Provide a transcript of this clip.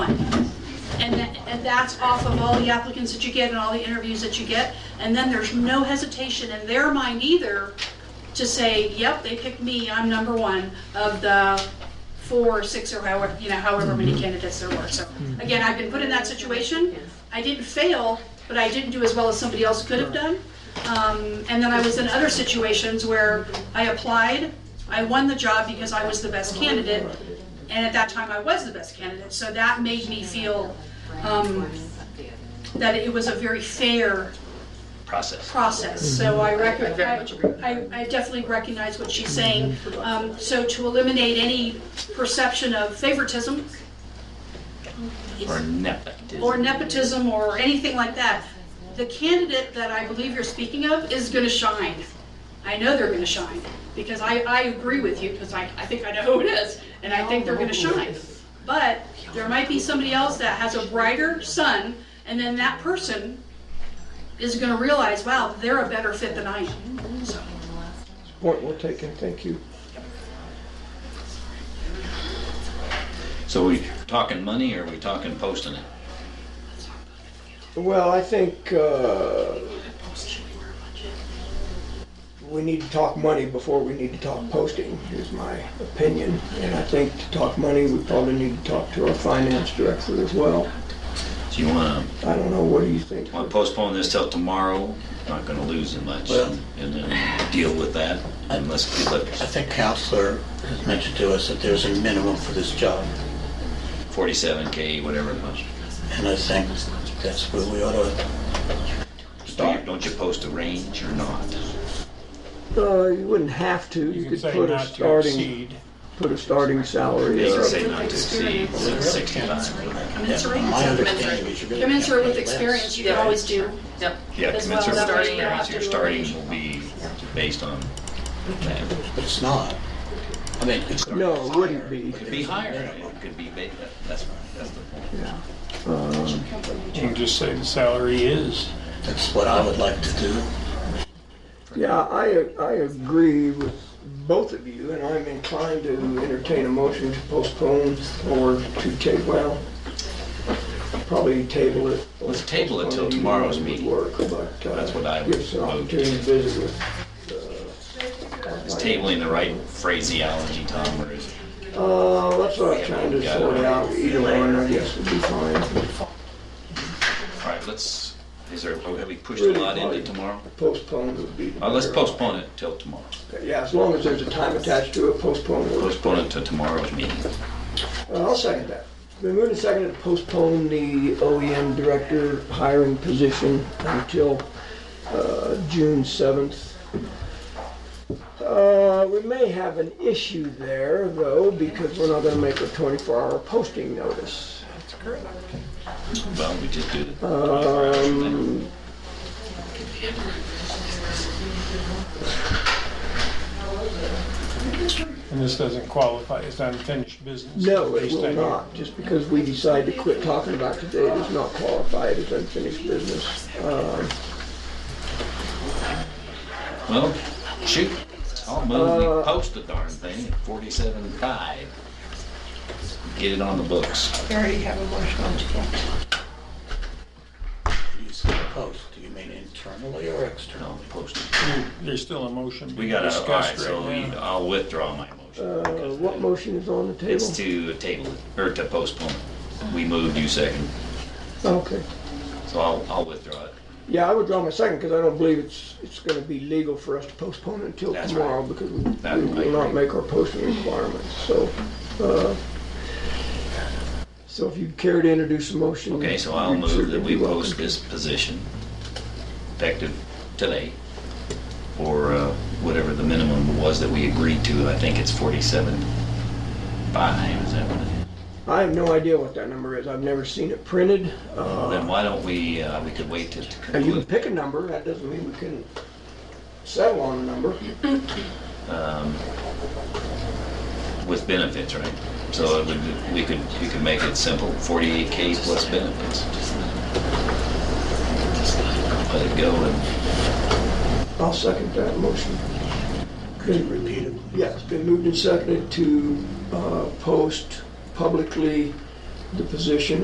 And that's off of all the applicants that you get and all the interviews that you get. And then there's no hesitation in their mind either to say, yep, they picked me, I'm number one of the four, or six, or however, you know, however many candidates there were. So again, I've been put in that situation. I didn't fail, but I didn't do as well as somebody else could have done. Um, And then I was in other situations where I applied, I won the job because I was the best candidate, and at that time I was the best candidate. So that made me feel um, that it was a very fair process. process, so I rec- I very much agree with I, I definitely recognize what she's saying. Um, so to eliminate any perception of favoritism Or nepotism. or nepotism or anything like that, the candidate that I believe you're speaking of is gonna shine. I know they're gonna shine, because I, I agree with you, because I, I think I know who it is, and I think they're gonna shine. But there might be somebody else that has a brighter sun, and then that person is gonna realize, wow, they're a better fit than I am, so. Point well taken, thank you. So we talking money or are we talking posting it? Well, I think uh, we need to talk money before we need to talk posting, is my opinion. And I think to talk money, we probably need to talk to our finance director as well. So you wanna, I don't know, what do you think? wanna postpone this till tomorrow? Not gonna lose it much Well- and then deal with that and let's do I it. think counselor has mentioned to us that there's a minimum for this job, Forty-seven K, whatever it was. and I think that's where we ought to Don't- Don't you post a range or not? Uh, You wouldn't have to, You you can could say put a not to starting, exceed. put a starting salary. They can of- say not to exceed sixty-five. Commensurate, My understanding is you're gonna. commensurate with experience, you can always do. Yep. Yeah, As well as commensurate with starting, experience, yeah. your starting will be based on that. But it's not. I mean, it's. No, it wouldn't be. Could be higher, it could be, ba- that's, that's the point. You can just say the salary is. That's what I would like to do. Yeah, I, I agree with both of you, and I'm inclined to entertain a motion to postpone or to table, well, probably table it. Let's table it till tomorrow's meeting. Would work, but, uh, That's what I would Gives an vote. opportunity to visit with. uh, Is tabling the right phraseology, Tom, or is it? Uh, that's what I'm trying to sort out, either one, I guess would be fine. All right, let's, is there, oh, have we pushed a lot into tomorrow? Postpone would be. Uh, let's better. postpone it till tomorrow. Yeah, as long as there's a time attached to it, postpone works. Postpone it to tomorrow's meeting. Uh, I'll second that. Been moved and seconded to postpone the OEM director hiring position until uh, June 7th. Uh, We may have an issue there, though, because we're not going to make a 24-hour posting notice. Well, we just do the Um, And this doesn't qualify as unfinished business. No, it Based will on- not. Just because we decide to quit talking about today does not qualify it as unfinished business. Um, Well, shoot, I'll move, uh, we post the darn thing at forty-seven five. Get it on the books. We already have a motion on the floor. You said post, do you mean internally or externally? No, post it. There's still a motion We being gotta, all right, discussed so right we- now. I'll withdraw my motion. uh, What motion is on the table? It's to table it, or to postpone it. We moved, you second, Okay. so I'll, I'll withdraw it. Yeah, I would draw my second because I don't believe it's, it's going to be legal for us to postpone it until That's tomorrow because we That- we I will not agree. make our posting requirements, so. uh, So if you care to introduce a motion. Okay, so I'll you'd move certainly that we be welcome post to. this position effective today, or uh, whatever the minimum was that we agreed to. I think it's 47 five, is that what it is? I have no idea what that number is. I've never seen it printed. Well, Uh, Then why don't we, uh, we could wait to to And you can conclude. pick a number, that doesn't mean we can settle on a number. um, with benefits, right? So it would- we could, you could make it simple, 48K plus benefits. Let it go and I'll second that motion. Could you repeat it? Yeah, it's been moved and seconded to uh, post publicly the position